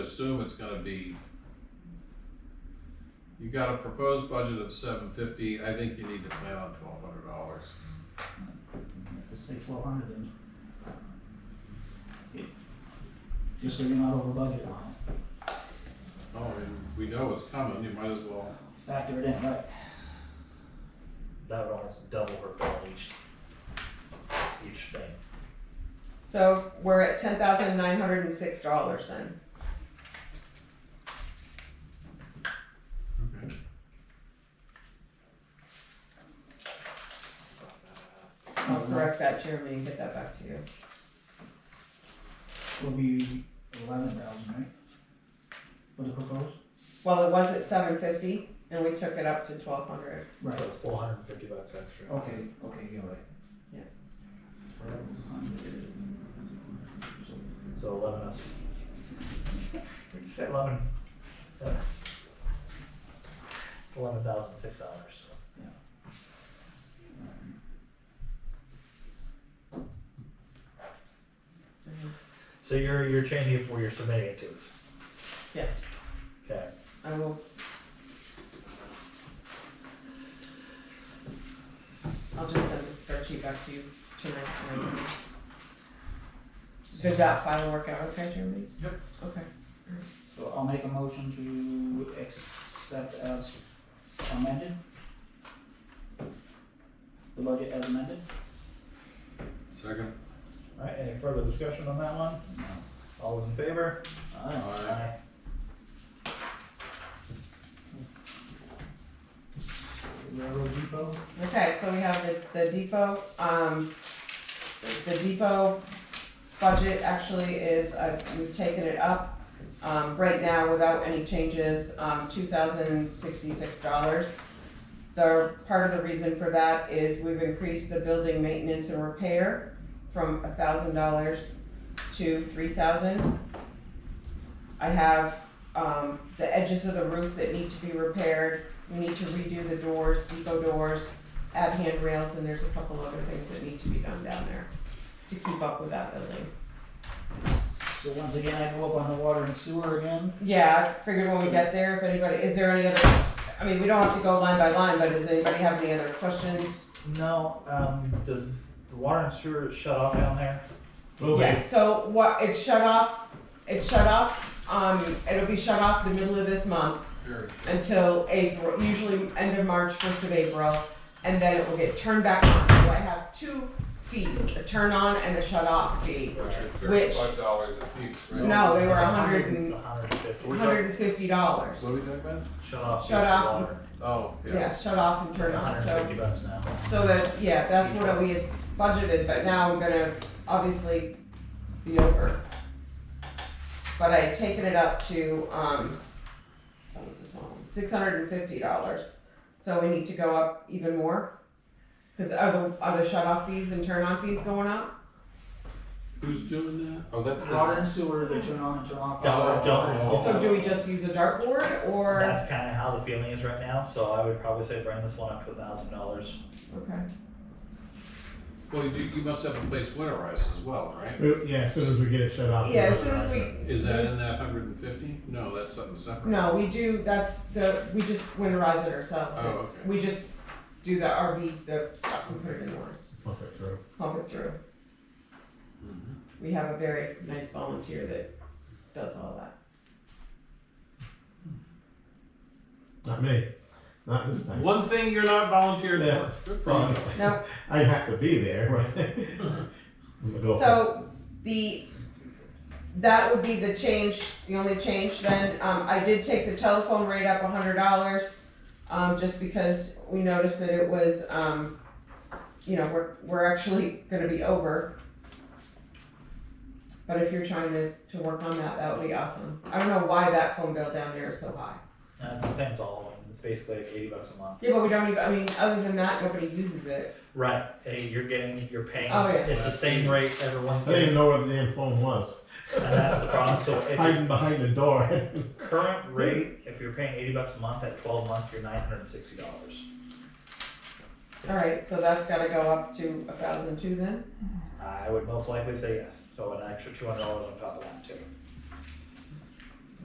assume it's gonna be, you got a proposed budget of seven fifty, I think you need to plan on twelve hundred dollars. Let's say twelve hundred then. Just so you're not over budget on it, Oh, and we know it's coming, you might as well, factor it in, right? That would almost double her bill each, each thing. So we're at ten thousand nine hundred and six dollars then. okay, I'll correct that, Jeremy, and get that back to you. Will be eleven thousand, right? For the proposed? Well, it was at seven fifty and we took it up to twelve hundred. Right, So it's four hundred and fifty bucks extra. okay, okay, you're right. Yeah. So eleven us. What'd you say, eleven? Eleven thousand six dollars, so. So you're, you're changing it for your submitting it to us, Yes, okay? I will. I'll just send the spreadsheet back to you tonight. tonight. Did that final work out okay, Jeremy? Yep. Okay. So I'll make a motion to accept as amended. The budget as amended? second, Alright, any further discussion on that one? No. All those in favor? Alright, Aye. Railroad Depot, Okay, so we have the, the depot, um, the- the depot budget actually is, uh, we've taken it up. Um, right now, without any changes, um, two thousand sixty-six dollars. The, part of the reason for that is we've increased the building maintenance and repair from thousand dollars to three thousand. I have, um, the edges of the roof that need to be repaired, we need to redo the doors, depot doors, add handrails, and there's a couple other things that need to be done down there to keep up with that building. so once again, I go up on the water and sewer again, Yeah, I figured when we get there, if anybody, is there any other, I mean, we don't have to go line by line, but does anybody have any other questions? No, um, does the water and sewer shut off down there? Yeah, so what, it's shut off, it's shut off, um, it'll be shut off the middle of this month here, until April, usually end of March, first of April, and then it will get turned back on. So I have two fees, a turn on and a shut off fee. which are Which- thirty-five dollars a piece, right? No, they were It's a hundred and- A hundred and fifty. We got- hundred and fifty dollars. What are we talking about? Shut off. Shut just the off. water. Oh, yeah, Yeah, shut off and turn on, hundred and so, fifty bucks now. so that, yeah, that's what we had budgeted, but now I'm gonna obviously be over. But I had taken it up to, um, what was this one, six hundred and fifty dollars, so we need to go up even more? Cause are the, are the shut off fees and turn on fees going up? who's doing that? Oh, that's water the, and sewer, they turn on and turn off. Don't, don't. So do we just use a dartboard, or? That's kinda how the feeling is right now, so I would probably say bring this one up to a thousand dollars. Okay, well, you, you must have a place winterized as well, right? We- Yeah, as soon as we get it shut off. yeah, we'll as soon as we, Is that in that hundred and fifty? No, that's something separate. No, we do, that's the, we just winterize it ourselves, Oh, it's, okay. we just do the RV, the stuff and put it in lines, Pump it through. pump it through. Mhm. We have a very nice volunteer that does all that. Not me. Not this time. One thing you're not volunteered Yeah. for, good for you. Probably. No. I have to be there. right? I'm the gopher. So, the, that would be the change, the only change then, um, I did take the telephone rate up a hundred dollars. Um, just because we noticed that it was, um, you know, we're, we're actually gonna be over. But if you're trying to, to work on that, that would be awesome. I don't know why that phone bill down there is so high. Uh, it's the same as all of them, it's basically like eighty bucks a month. Yeah, but we don't even, I mean, other than that, nobody uses it. Right, hey, you're getting, you're paying, Oh, yeah. it's the same rate everyone's I didn't even getting, know where the damn phone was. and that's the problem, so if your Hiding behind the door. current rate, if you're paying eighty bucks a month at twelve month, you're nine hundred and sixty dollars. Alright, so that's gotta go up to a thousand two then? I would most likely say yes, so an extra two hundred dollars on top of that too.